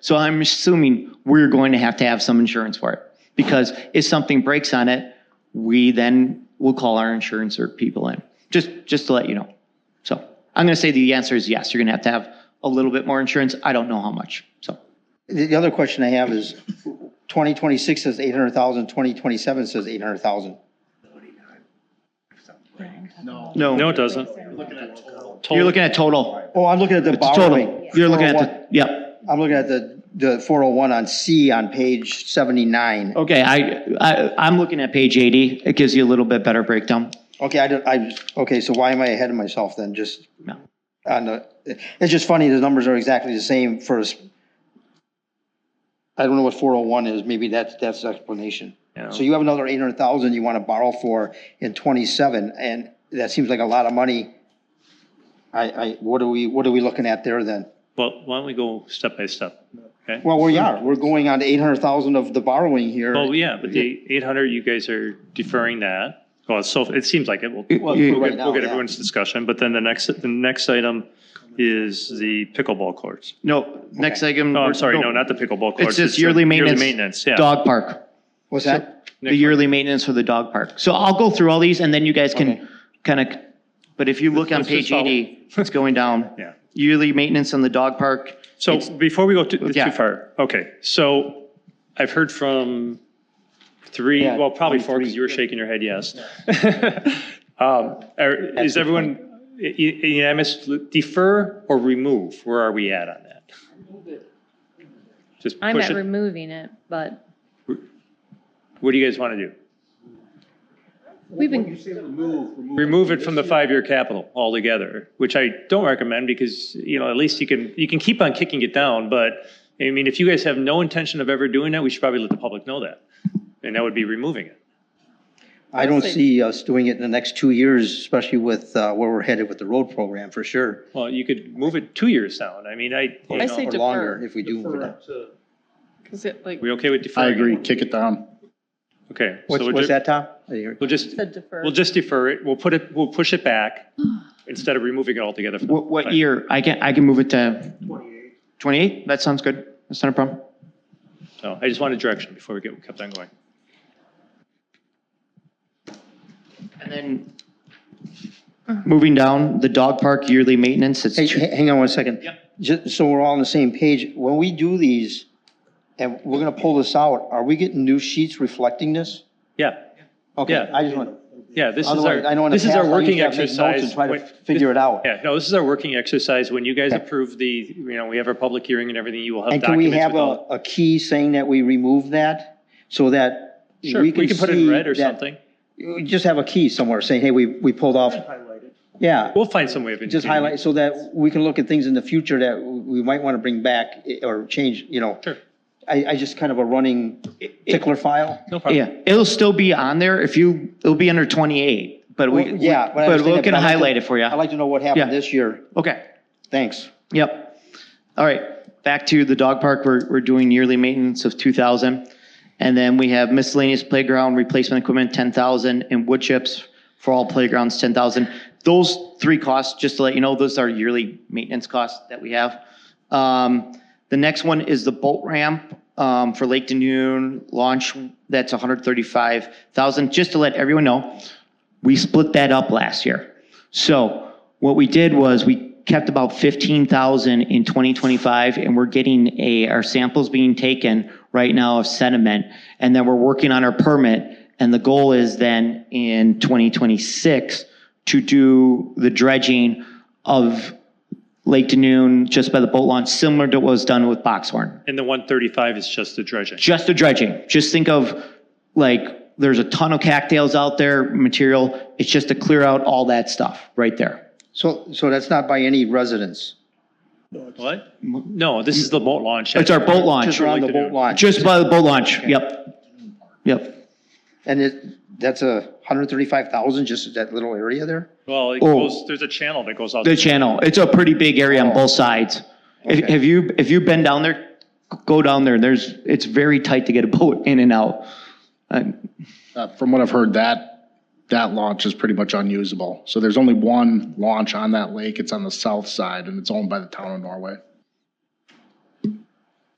So I'm assuming we're going to have to have some insurance for it. Because if something breaks on it, we then will call our insurance or people in, just, just to let you know. So I'm going to say the answer is yes, you're going to have to have a little bit more insurance. I don't know how much, so. The, the other question I have is, twenty twenty-six says eight hundred thousand, twenty twenty-seven says eight hundred thousand. No, No, it doesn't. you're looking at total, Oh, I'm looking at the it's total. borrowing. You're looking at, the yep. I'm looking at the, the four oh one on C on page seventy-nine. Okay, I, I, I'm looking at page 80. It gives you a little bit better breakdown. Okay, I don't, I, okay, so why am I ahead of myself then, just? No. On the, it's just funny, the numbers are exactly the same for us. I don't know what four oh one is, maybe that's, that's the explanation. Yeah. So you have another eight hundred thousand you wanna borrow for in twenty-seven, and that seems like a lot of money. I, I, what are we, what are we looking at there then? Well, why don't we go step by step? Okay? Well, we are, we're going on to eight hundred thousand of the borrowing here. Well, yeah, but the eight hundred, you guys are deferring that. Well, so it seems like it. We'll, we'll you- get- right now, we'll get yeah. everyone's discussion, but then the next, the next item is the pickleball courts. No, next item. No, Oh, I'm sorry, no, not the pickleball courts. It's just the yearly maintenance. yeah. Dog park. What's that? the yearly maintenance for the dog park. So I'll go through all these and then you guys Okay. can kind of, but if you look on Let's just page 80, it's going down. Yeah. Yearly maintenance on the dog park. So before we go too, Yeah. too far, okay, so I've heard from three, Yeah, well, probably four, because you were shaking your head, yes. Um, are- Is the everyone u- u- unanimous, defer or remove? Where are we at on that? Just I'm push at it. removing it, but What do you guys want to do? we've been, Remove it from the five-year capital altogether, which I don't recommend because, you know, at least you can, you can keep on kicking it down, but I mean, if you guys have no intention of ever doing that, we should probably let the public know that. And that would be removing it. I don't see us doing it in the next two years, especially with, uh, where we're headed with the road program, for sure. Well, you could move it two years down. I mean, I, you I know, say or defer. longer if we do. move it up. Because it like. we okay with I deferring? agree, kick it down. Okay. so What's, we'll what's ju- that, Tom? I hear- We'll just, Said defer. we'll just defer it. We'll put it, we'll push it back instead of removing it altogether. from the What, what plan. year? I can, I can move it to 28? That sounds good. That's not a problem. So I just wanted direction before we get, kept on going. And then Uh-huh. moving down, the dog park yearly maintenance, it's Hey, two- h- hang on one second. Ju- so we're all on the same page, when we do these, and we're gonna pull this out, are we getting new sheets reflecting this? Yeah, Okay, Yeah. I just want, yeah, this is otherwise, I know our, in the this past, is I our used working to have to make notes and exercise. try to when- figure it out. Yeah, no, this is our working exercise. When you guys Okay. approve the, you know, we have our public hearing and everything, you will have And can we documents have with a, all. a key saying that we remove that, so that we Sure, can see we can put it in red or that- something. you Just have a key somewhere saying, hey, we, we pulled off. Yeah, We'll find some way of. just including it. highlight, so that we can look at things in the future that we might wanna bring back, eh, or change, you know. Sure. I, I just kind of a running tickler file. No problem. yeah, it'll still be on there if you, it'll be under 28, but we, Well, yeah, but but I we understand that, can but I'd like to- highlight it for you. I'd like to know what Yeah. happened this year. Okay. Thanks. Yep. All right, back to the dog park, we're, we're doing yearly maintenance of two thousand. And then we have miscellaneous playground replacement equipment, ten thousand, and wood chips for all playgrounds, ten thousand. Those three costs, just to let you know, those are yearly maintenance costs that we have. Um, the next one is the boat ramp, um, for Lake Dune launch, that's hundred thirty-five thousand, just to let everyone know. We split that up last year. So what we did was we kept about 15,000 in 2025 and we're getting a, our samples being taken right now of sediment. And then we're working on our permit. And the goal is then in 2026 to do the dredging of Lake Danoon just by the boat launch, similar to what was done with Boxhorn And the one thirty-five is just the dredging. just the dredging. Just think of like there's a ton of cattails out there, material. It's just to clear out all that stuff right there. So, so that's not by any residents? What? No, this is the boat launch. It's our boat Just launch, around the Like to boat do. launch? just by the boat launch. Yep. Yep. And it, that's a hundred thirty-five thousand, just that little area there? Well, it Oh. goes, there's a channel that goes out. The channel. It's a pretty big area on both sides. If, Okay. have you, if you've been down there, go down there. There's, it's very tight to get a boat in and out. Uh, Uh, From what I've heard, that, that launch is pretty much unusable. So there's only one launch on that lake. It's on the south side and it's owned by the town of Norway.